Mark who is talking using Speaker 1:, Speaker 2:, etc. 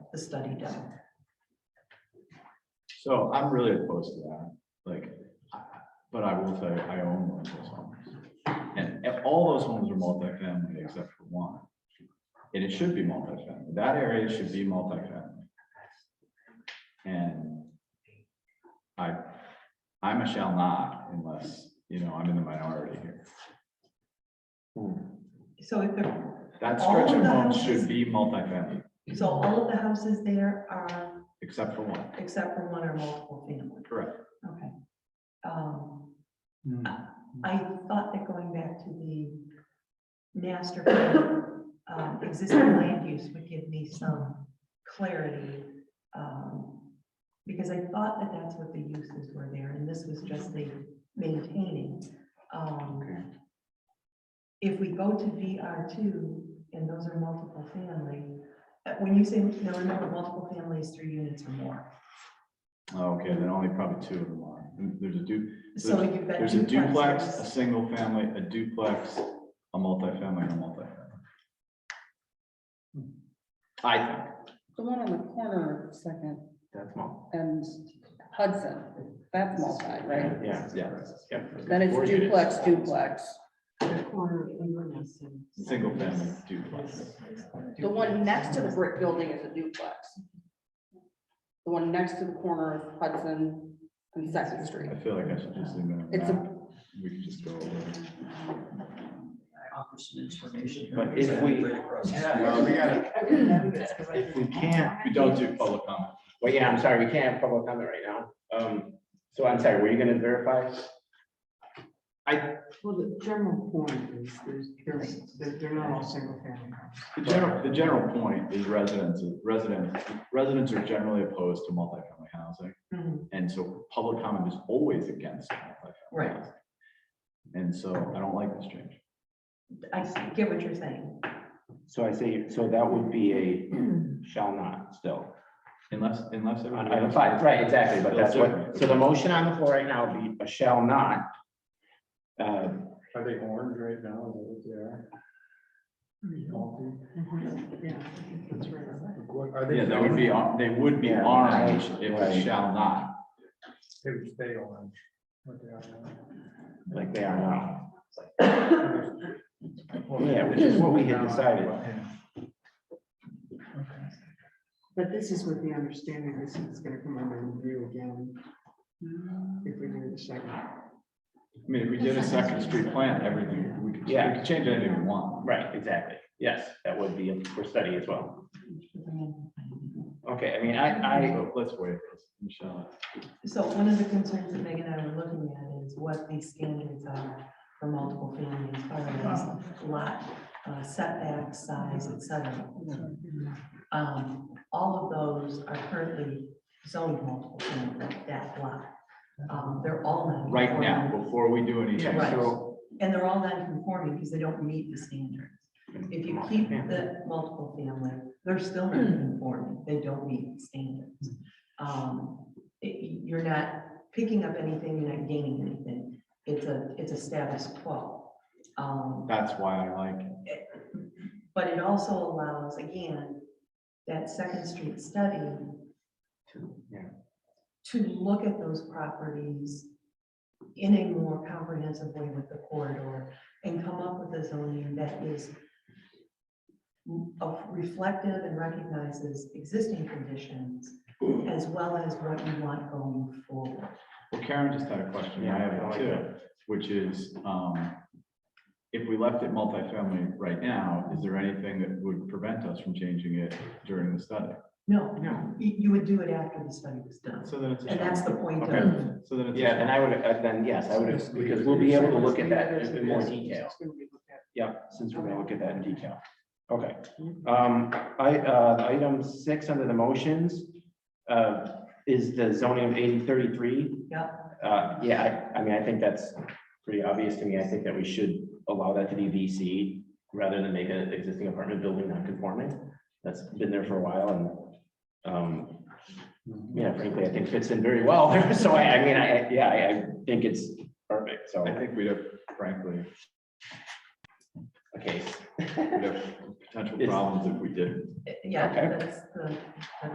Speaker 1: the study done.
Speaker 2: So I'm really opposed to that, like, I- but I will tell you, I own one of those homes. And and all those homes are multifamily except for one. And it should be multifamily, that area should be multifamily. And I, I'm a shall not unless, you know, I'm in the minority here.
Speaker 1: So if, they're-
Speaker 2: That
Speaker 1: All
Speaker 2: stretch
Speaker 1: of
Speaker 2: of
Speaker 1: the
Speaker 2: homes
Speaker 1: houses-
Speaker 2: should be multifamily,
Speaker 1: so all of the houses there are,
Speaker 2: except for one,
Speaker 1: except for one or multiple family,
Speaker 2: correct?
Speaker 1: okay. Um, I thought that going back to the master plan, um, existing land use would give me some clarity. um, Because I thought that that's what the uses were there, and this was just the maintaining. Um,
Speaker 2: Okay.
Speaker 1: if we go to VR two, and those are multiple family, uh, when you say, now remember, multiple families, three units or more.
Speaker 2: Okay, then only probably two of them are, there's a du,
Speaker 1: So you've got.
Speaker 2: There's a duplex, a
Speaker 1: duplexes.
Speaker 2: single family, a duplex, a multifamily, and a multifamily. I think
Speaker 3: The one on the corner second
Speaker 2: that's small.
Speaker 3: and Hudson, that's multi, right?
Speaker 2: Yeah, yeah, yeah.
Speaker 3: Then it's
Speaker 2: Four units.
Speaker 3: duplex, duplex.
Speaker 2: Single family duplex.
Speaker 3: The one next to the brick building is a duplex. The one next to the corner of Hudson and Second Street.
Speaker 2: I feel like I should just leave it
Speaker 3: It's
Speaker 2: at
Speaker 3: a-
Speaker 2: that. We could just go over. it.
Speaker 4: I offer some information. here.
Speaker 2: But if we-
Speaker 4: Right across the street.
Speaker 5: Well, we gotta,
Speaker 2: If we can't, we don't do public comment.
Speaker 5: well, yeah, I'm sorry, we can't have public comment right now. Um, so I'm sorry, were you gonna verify?
Speaker 6: Well, the general point is, there's, there's, they're they're not all single family houses.
Speaker 2: The general, the general point is residents, residents, residents are generally opposed to multifamily housing.
Speaker 1: Mhm,
Speaker 2: And so public comment is always against multifamily.
Speaker 1: Right,
Speaker 2: And so I don't like this change.
Speaker 1: I get what you're saying.
Speaker 5: So I say, so that would be a shall not still.
Speaker 2: Unless, unless.
Speaker 5: On
Speaker 2: everybody
Speaker 5: item
Speaker 2: else-
Speaker 5: five, right, exactly, but that's what, so the
Speaker 2: Okay.
Speaker 5: motion on the floor right now would be a shall not. Uh,
Speaker 7: Are they orange right now? Is that what they are? Healthy?
Speaker 6: Mm-hmm. Yeah, that's right.
Speaker 7: What- Are they?
Speaker 2: Yeah, that would be, on- they would be
Speaker 5: Yeah.
Speaker 2: orange if
Speaker 5: Right.
Speaker 2: it shall not,
Speaker 7: They would stay orange. what they are now.
Speaker 5: like they are now. Yeah, which is what we had decided.
Speaker 6: But this is with the understanding this is gonna come under review again. If we do the second.
Speaker 2: I mean, if we did a second street plan, everything, we could, we
Speaker 5: Yeah.
Speaker 2: could change anything we want.
Speaker 5: Right, exactly. Yes, that would be for study as well. Okay, I mean, I, I,
Speaker 2: So Let's wait, let's- Michelle.
Speaker 1: So one of the concerns that Megan and I were looking at is what the standards are for multiple families, as far as lot, uh, setback, size, et cetera. Um, all of those are currently zoned multiple family, that lot. Um, they're all non.
Speaker 2: Right now, before we do anything,
Speaker 1: Right.
Speaker 2: so
Speaker 1: And they're all non-conforming because they don't meet the standards. If you keep the multiple family, they're still non-conforming, they don't meet the standards. Um, it- you're not picking up anything, you're not gaining anything, it's a, it's a status quo. Um,
Speaker 2: that's why I like, it.
Speaker 1: but it also allows, again, that Second Street study
Speaker 5: yeah.
Speaker 1: to look at those properties in a more comprehensive way with the corridor and come up with a zoning that is of reflective and recognizes existing conditions as well as what you want going forward.
Speaker 2: well, Karen just had a question, I
Speaker 5: Yeah,
Speaker 2: have
Speaker 5: I
Speaker 2: it
Speaker 5: like
Speaker 2: too, which is, um, if we left it multifamily right now, is there anything that would prevent us from changing it during the study?
Speaker 1: No,
Speaker 2: No.
Speaker 1: you, you would do it after the study was done.
Speaker 2: So then it's. a
Speaker 1: And that's the point of,
Speaker 2: Okay, so then it's. a-
Speaker 5: Yeah, then I would, uh, then yes, I would, have because we'll be able to look at that in in more detail.
Speaker 6: It's gonna be looked at.
Speaker 5: Yeah, since we're gonna look at that in detail. Okay, um, I, uh, item six under the motions, uh, is the zoning of eighty thirty-three.
Speaker 1: Yep.
Speaker 5: Uh, yeah, I, I mean, I think that's pretty obvious to me. I think that we should allow that to be VC rather than make an existing apartment building non-conforming. That's been there for a while and, um, yeah, frankly, I think fits in very well. So I, I mean, I, yeah, I, I think it's perfect, so,
Speaker 2: I think we'd have, frankly,
Speaker 5: okay.
Speaker 2: we'd have potential
Speaker 5: It's-
Speaker 2: problems if we didn't.
Speaker 1: yeah,
Speaker 5: Okay.
Speaker 1: that's the,